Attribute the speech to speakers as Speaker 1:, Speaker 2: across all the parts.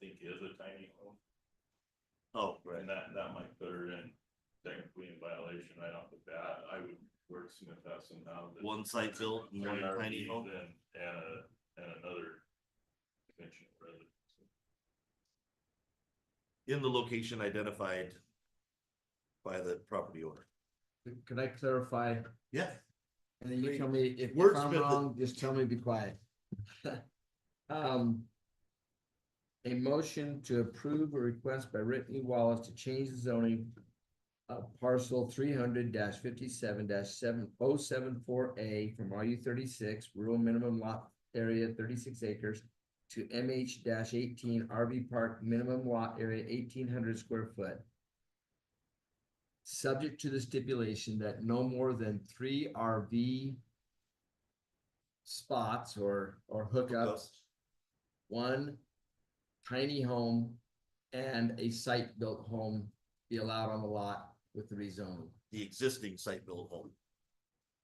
Speaker 1: think is a tiny home,
Speaker 2: Oh,
Speaker 1: and that, that might put her in technically in violation right off the bat, I would wordsmith that somehow. that-
Speaker 2: One site built and one
Speaker 1: An RV
Speaker 2: tiny home.
Speaker 1: And, and a, and another conventional residence.
Speaker 2: In the location identified by the property owner.
Speaker 3: Could I clarify?
Speaker 2: Yeah.
Speaker 3: And then you tell me if if
Speaker 2: Wordsmith
Speaker 3: I'm
Speaker 2: it.
Speaker 3: wrong, just tell me, be quiet. Um. A motion to approve a request by Brittany Wallace to change the zoning. of parcel three hundred fifty-seven seven oh seven four A from RU thirty-six rural minimum lot area thirty-six acres. To MH eighteen RV park minimum lot area eighteen hundred square foot subject to the stipulation that no more than three RV spots or, or hookups, one tiny home and a site-built home be allowed on the lot with the rezoning.
Speaker 2: The existing site built home.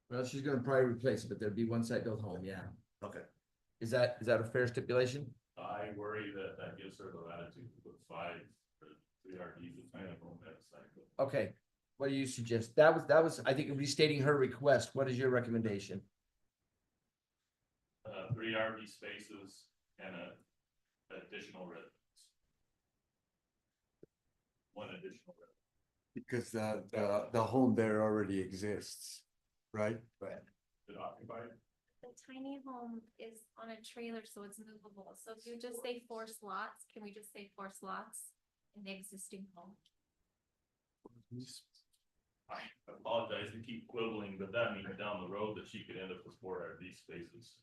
Speaker 3: Well, she's gonna probably replace it, but there'd be one site-built home, yeah.
Speaker 2: Okay.
Speaker 3: Is that, is that a fair stipulation?
Speaker 1: I worry that that gives her the latitude to put five, or three RVs in tiny home at a cycle.
Speaker 3: Okay, what do you suggest? That was, that was, I think restating her request. What is your recommendation?
Speaker 1: Uh, three RV spaces and a additional residence. One additional residence.
Speaker 4: Because the, the, the home there already exists, right?
Speaker 1: Did occupy it?
Speaker 5: The tiny home is on a trailer, so it's movable. So if you just say four slots, can we just say four slots in the existing home?
Speaker 1: I apologize to keep quibbling, but that means down the road that she could end up with four RV spaces.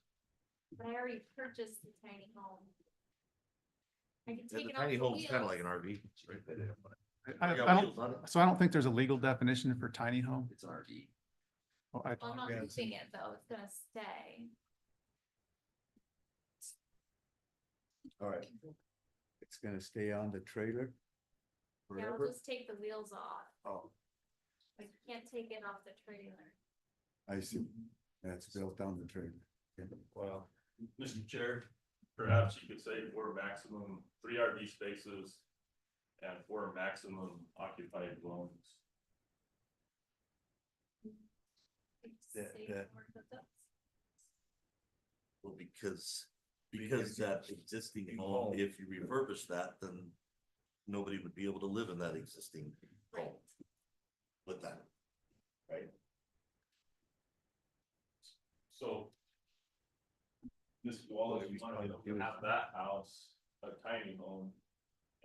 Speaker 5: But I already purchased the tiny home. I can
Speaker 2: And
Speaker 5: take
Speaker 2: the
Speaker 5: it off
Speaker 2: tiny
Speaker 5: the
Speaker 2: home's kind of like an
Speaker 5: wheels.
Speaker 2: RV.
Speaker 6: I, I
Speaker 2: You got
Speaker 6: don't,
Speaker 2: wheels on it?
Speaker 6: so I don't think there's a legal definition for tiny home.
Speaker 3: It's RV.
Speaker 6: Oh, I,
Speaker 5: Well, I'm not
Speaker 4: Yeah.
Speaker 5: moving it though, it's gonna stay.
Speaker 4: All right. It's gonna stay on the trailer.
Speaker 5: Yeah,
Speaker 4: Forever.
Speaker 5: I'll just take the wheels off.
Speaker 4: Oh,
Speaker 5: I can't take it off the trailer.
Speaker 4: I see. That's built on the trailer. Okay.
Speaker 1: Well, Mr. Chair, perhaps you could say four maximum, three RV spaces and four maximum occupied dwellings.
Speaker 5: I just
Speaker 2: That-
Speaker 5: say
Speaker 2: that-
Speaker 5: four of those.
Speaker 2: Well, because, because that existing home, if you refurbish that, then nobody would be able to live in that existing home
Speaker 5: Right.
Speaker 2: with that.
Speaker 1: So. Ms. Wallace, you might have that house, a tiny home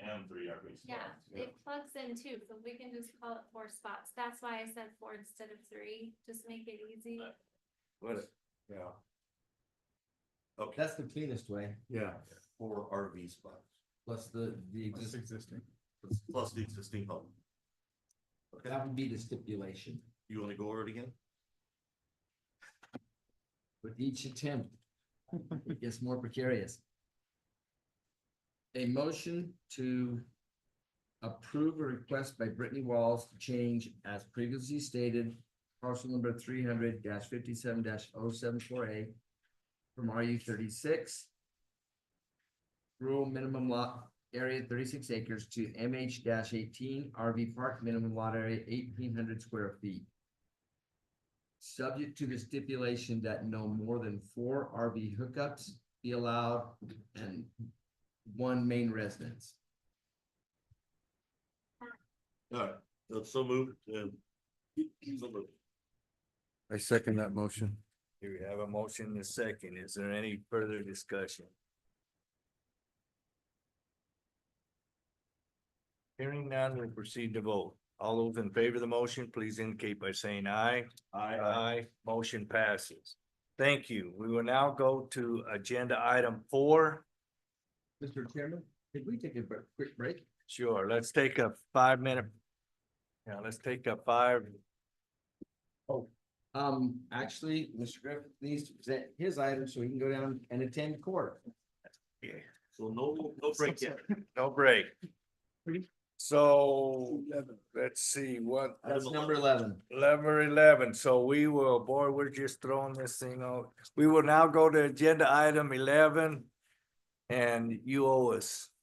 Speaker 1: and three RV
Speaker 5: Yeah,
Speaker 1: spots.
Speaker 5: it plugs in too, so we can just call it four spots. That's why I said four instead of three, just make it easy.
Speaker 4: What, yeah,
Speaker 2: Okay,
Speaker 3: That's the cleanest way,
Speaker 4: yeah.
Speaker 2: four RV spots,
Speaker 3: plus the, the
Speaker 6: it's
Speaker 3: existing.
Speaker 6: existing.
Speaker 2: plus- plus the existing home. Okay,
Speaker 3: That would be the stipulation
Speaker 2: you wanna go over it again?
Speaker 3: with each attempt. It gets more precarious. A motion to approve a request by Brittany Walls to change as previously stated. Parcel number three hundred fifty-seven 74 A from RU thirty-six. Rural minimum lot area thirty-six acres to MH eighteen RV park minimum lot area eighteen hundred square feet subject to the stipulation that no more than four RV hookups be allowed and one main residence.
Speaker 2: Alright, so- so moved, um, so moved.
Speaker 4: I second that motion.
Speaker 7: Here we have a motion and a second. Is there any further discussion? Hearing none, we'll proceed to vote. All those in favor of the motion, please indicate by saying aye. Aye. Aye, motion passes. Thank you. We will now go to agenda item four.
Speaker 3: Mr. Chairman, could we take a br- quick break?
Speaker 7: Sure, let's take a five minute. Yeah, let's take a five,
Speaker 3: Um, actually, Mr. Griffith needs to present his item so he can go down and attend court.
Speaker 2: So no, no break yet.
Speaker 7: no break. So, let's see what.
Speaker 3: That's number eleven.
Speaker 7: Number eleven, so we will, boy, we're just throwing this thing out. We will now go to agenda item eleven. And you owe us